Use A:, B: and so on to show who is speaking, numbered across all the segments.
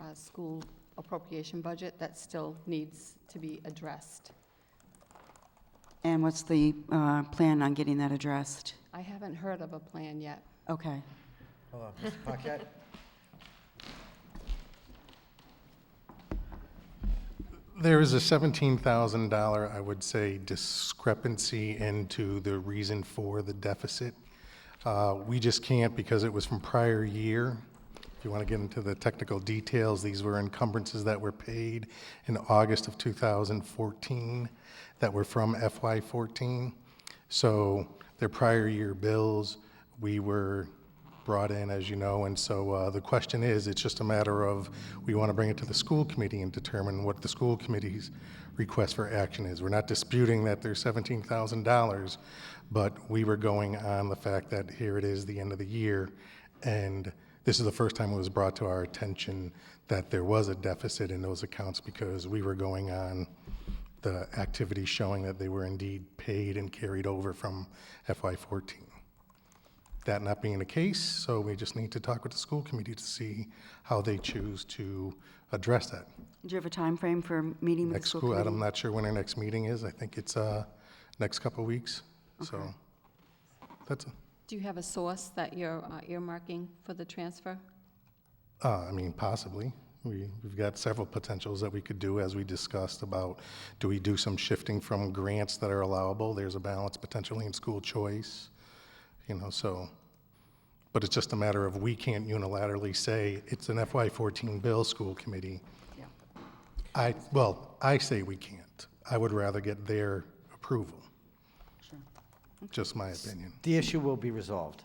A: uh, school appropriation budget that still needs to be addressed.
B: And what's the uh, plan on getting that addressed?
A: I haven't heard of a plan yet.
B: Okay.
C: Hold on, Mr. Paquette.
D: There is a $17,000, I would say, discrepancy into the reason for the deficit. Uh, We just can't because it was from prior year. If you want to get into the technical details, these were encumbrances that were paid in August of 2014 that were from FY14. So their prior year bills, we were brought in, as you know, and so uh, the question is, it's just a matter of, we want to bring it to the school committee and determine what the school committee's request for action is. We're not disputing that there's $17,000, but we were going on the fact that here it is, the end of the year, and this is the first time it was brought to our attention that there was a deficit in those accounts because we were going on the activity showing that they were indeed paid and carried over from FY14. That not being the case, so we just need to talk with the school committee to see how they choose to address that.
B: Do you have a time frame for meeting with the
D: Next
B: school
D: school, I'm
B: committee?
D: not sure when our next meeting is. I think it's uh, next couple of weeks, so that's,
A: Do you have a source that you're uh, earmarking for the transfer?
D: uh, I mean, possibly. We- We've got several potentials that we could do, as we discussed about, do we do some shifting from grants that are allowable? There's a balance potentially in school choice, you know, so. But it's just a matter of, we can't unilaterally say, it's an FY14 bill, school committee. I, well, I say we can't. I would rather get their approval. Just my opinion.
C: The issue will be resolved.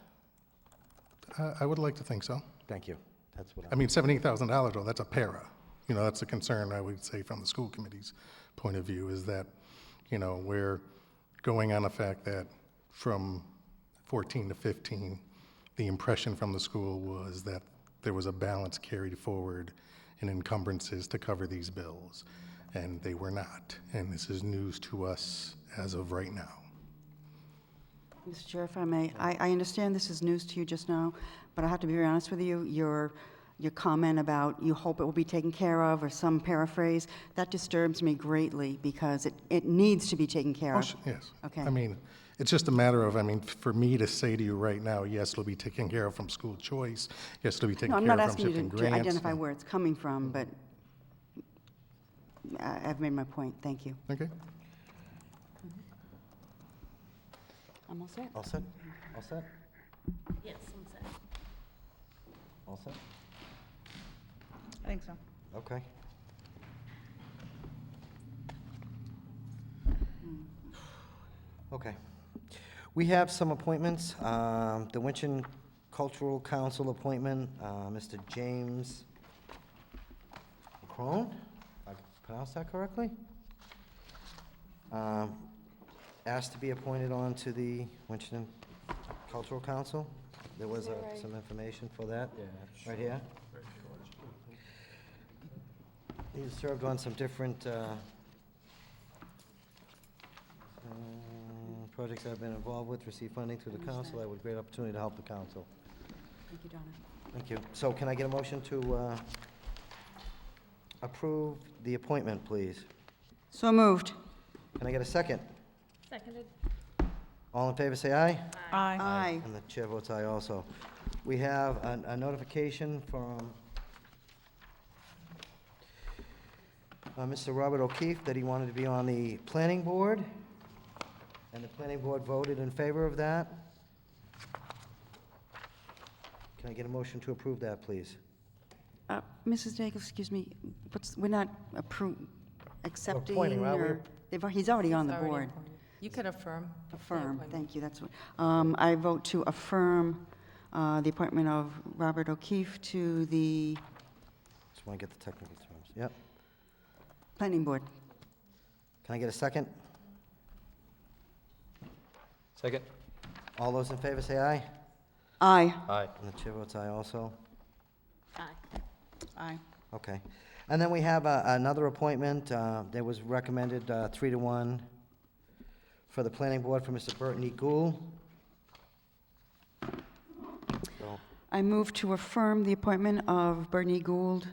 D: I, I would like to think so.
C: Thank you. That's what I.
D: I mean, seventy-eight thousand dollars, though, that's a para. You know, that's a concern, I would say, from the school committee's point of view, is that, you know, we're going on the fact that from fourteen to fifteen, the impression from the school was that there was a balance carried forward in encumbrances to cover these bills, and they were not. And this is news to us as of right now.
B: Mr. Chair, if I may, I, I understand this is news to you just now, but I have to be very honest with you, your, your comment about you hope it will be taken care of, or some paraphrase, that disturbs me greatly, because it, it needs to be taken care
D: Oh,
B: of.
D: sh- Yes.
B: Okay.
D: I mean, it's just a matter of, I mean, for me to say to you right now, yes, it'll be taken care of from school choice, yes, it'll be taken
B: No, I'm
D: care
B: not
D: of from Mm-hmm.
B: asking
D: shifting
B: you to- to
D: grants.
B: identify where it's coming from, but I- I've made my point, thank you.
D: Okay.
B: I'm all set.
C: All set? All set?
E: Yes, one sec.
C: All set?
F: I think so.
C: Okay. Okay. We have some appointments. Um, The Winchton Cultural Council appointment, uh, Mr. James Crone, if I pronounced that correctly? Um, Asked to be appointed on to the Winchton Cultural Council. There was uh, some information for that. Right here. He's served on some different uh, um, projects I've been involved with, received funding through the council. I would great opportunity to help the council.
B: Thank you, Donna.
C: Thank you. So can I get a motion to uh, approve the appointment, please?
B: So moved.
C: Can I get a second?
E: Seconded.
C: All in favor, say aye.
F: Aye.
B: Aye.
C: And the chair votes aye also. We have a a notification from uh, Mr. Robert O'Keefe that he wanted to be on the planning board, and the planning board voted in favor of that. Can I get a motion to approve that, please?
B: Uh, Mrs. Jacobs, excuse me, what's, we're not appro, accepting
C: appointing, right?
B: or,
C: We're-
B: they've, al- he's already on the
F: It's already
B: board.
F: appointed. You could affirm. the
B: Affirm,
F: appointment.
B: thank you, that's what, um, I vote to affirm, uh, the appointment of Robert O'Keefe to the
C: Just want to get the technical terms. Yep.
B: planning board.
C: Can I get a second?
G: Second?
C: All those in favor say aye.
B: Aye.
G: Aye.
C: And the chair votes aye also.
E: Aye.
B: Aye.
C: Okay. And then we have uh, another appointment uh, that was recommended uh, three to one for the planning board for Mr. Burton E. Gould. So,
B: I move to affirm the appointment of Bernie Gould